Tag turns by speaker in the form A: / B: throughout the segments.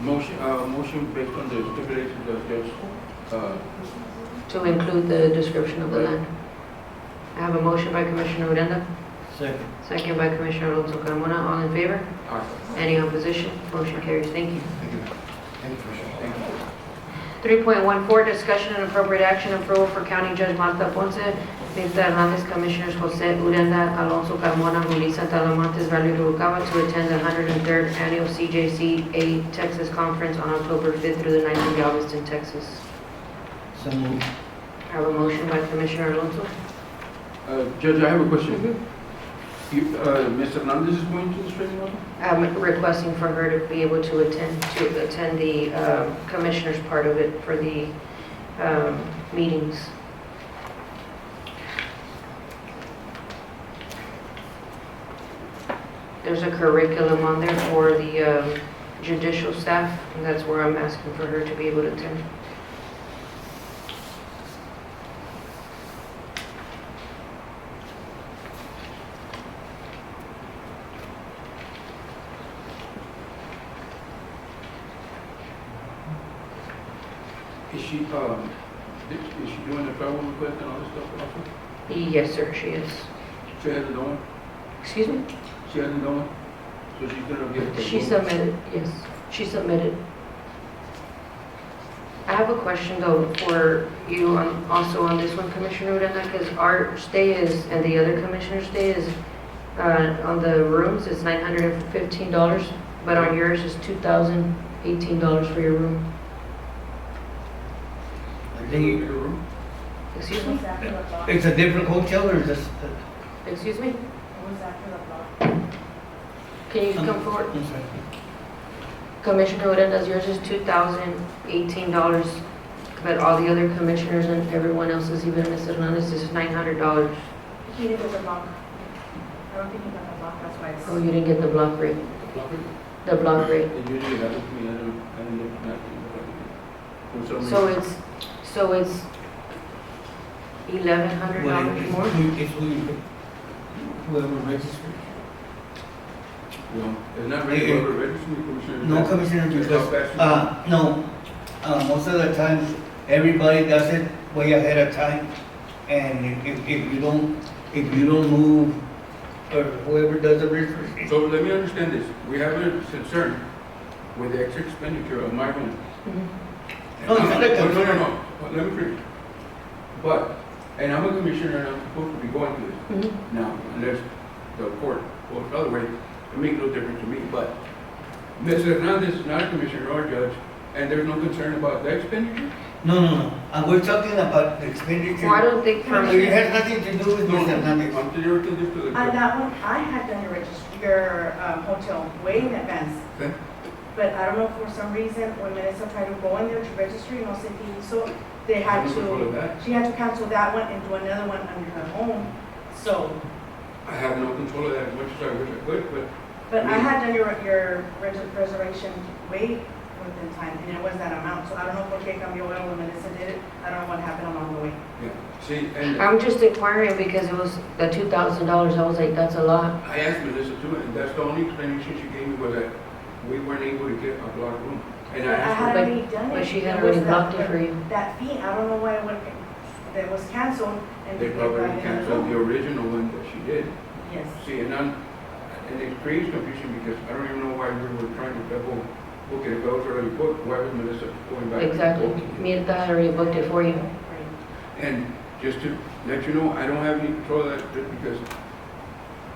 A: Motion, uh, motion based on the stipulations of Judge, uh,
B: to include the description of the land. I have a motion by Commissioner Odena,
C: Second.
B: second by Commissioner Alonso Carmona. All in favor? Any opposition? Motion carries. Thank you.
C: Thank you. Thank you, Commissioner. Thank you.
B: 3.14, discussion and appropriate action approval for County Judge Marta Ponce, Nita Hernandez, Commissioners Jose Uranda, Alonso Carmona, Melissa Talamontes, Valerie Rubalcaba to attend the 103rd Annual CJCA Texas Conference on October 5th through the 9th of August in Texas.
C: So moved.
B: I have a motion by Commissioner Alonso.
A: uh, Judge, I have a question. You, uh, Ms. Hernandez is going to this training also?
B: I'm requesting for her to be able to attend, to attend the um, Commissioners part of it for the um, meetings. There's a curriculum on there for the um, judicial staff, and that's where I'm asking for her to be able to attend.
A: Is she, um, is she doing the travel request and all this stuff also?
B: Yes, sir, she is.
A: She hasn't done,
B: Excuse me?
A: she hasn't done, so she's gonna get. the-
B: She submitted, yes, she submitted. I have a question though for you on, also on this one, Commissioner Uranda, because our stay is, and the other commissioner's stay is, uh, on the rooms, it's nine hundred and fifteen dollars, but on yours is two thousand eighteen dollars for your room.
C: I
A: Is it
C: think
A: in your room?
D: Uh,
B: Excuse me?
D: after the block.
C: it's a different hotel or is this?
B: Excuse me?
D: It was after the block.
B: Can you come forward?
C: I'm sorry.
B: Commissioner Uranda's, yours is two thousand eighteen dollars, but all the other commissioners and everyone else's, even Ms. Hernandez, is nine hundred dollars.
D: He did it with the block. I don't think he got the block, that's why it's.
B: Oh, you didn't get the block rate, the block rate.
A: They usually have it to me, I don't, I don't look at it. For some
B: So
A: reason.
B: it's, so it's eleven hundred
C: Well, it-
B: dollars
C: it's
B: more?
C: who- It's who you, whoever registered.
A: No, it's not ready
C: Eh, eh.
A: for the registry, Commissioner.
C: No, Commissioner, because, uh, no, uh, most of the times, everybody does it way ahead of time. And if, if you don't, if you don't move, or whoever does the registration.
A: So let me understand this, we have a concern with the extra expenditure of my home.
B: Mhm.
C: No, it's not a
A: No, no,
C: concern.
A: no, Well, let me finish. But, and I'm a commissioner and I'm supposed to be going to this
B: Mhm.
A: now, unless the court goes the other way, it makes no difference to me, but Ms. Hernandez is not a commissioner or a judge, and there's no concern about the expenditure?
C: No, no, no, and we're talking about the expenditure.
B: Well, I don't think for
C: It has nothing to do with
A: No,
C: Ms.
A: I'm
C: Hernandez.
A: directing this to the
D: On
A: judge.
D: that one, I had done your regist, your um, hotel way in advance.
A: Okay.
D: But I don't know, for some reason, when Melissa tried to go in there to register, you know, so they- so they had
A: I'm gonna follow
D: to,
A: that.
D: she had to cancel that one and do another one under her own. So,
A: I have no control of that as much as I wish I could, but
D: but I had done your, your reg- reservation way within time, and it was that amount. So I don't know por qué cambió it when Melissa did it. I don't know what happened along the way.
A: Yeah, see, and
B: I'm just inquiring because it was the two thousand dollars, I was like, that's a lot.
A: I asked Melissa too, and that's the only explanation she gave me was that we weren't able to get a block room. And I
D: But I
A: asked
D: had
B: But-
D: already done it.
B: But she had
D: There was
B: already blocked it
D: that-
B: for you.
D: That fee, I don't know why it went, that was canceled
A: her,
D: and.
A: they probably canceled the original one that she did.
D: Yes.
A: See, and I'm, and it creates confusion because I don't even know why we were trying to double book it. If I was already booked, why was Melissa going back? and
B: Exactly.
A: booking it?
B: Mirta had already booked it for you.
A: And just to let you know, I don't have any control of that just because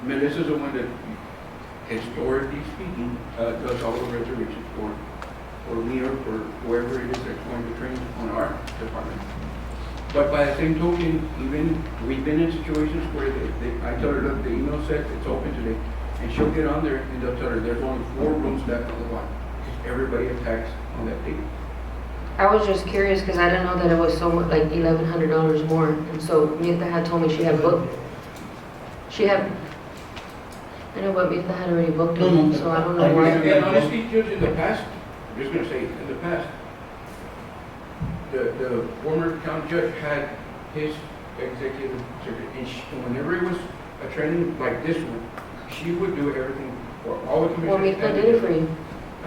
A: Melissa's the one that historically speaking, uh, does all the reservations for, for me or for whoever it is that's going to train on our department. But by the same token, even, we've been in situations where they, they, I tell her, look, the email said it's open today, and she'll get on there and they'll tell her, there's only four rooms left on the block. Everybody attacks on that date.
B: I was just curious because I didn't know that it was so much, like eleven hundred dollars more. And so Mirta had told me she had booked, she had, I know, but Mirta had already booked
C: No, no,
B: it, so I don't
C: I
B: know why.
C: agree.
A: And honestly, Judge, in the past, I'm just gonna say, in the past, the, the former county judge had his executive secretary, and she, and whenever it was a training like this one, she would do everything for all the
B: Well,
A: commissioners.
B: Mirta
A: and-
B: did it for you.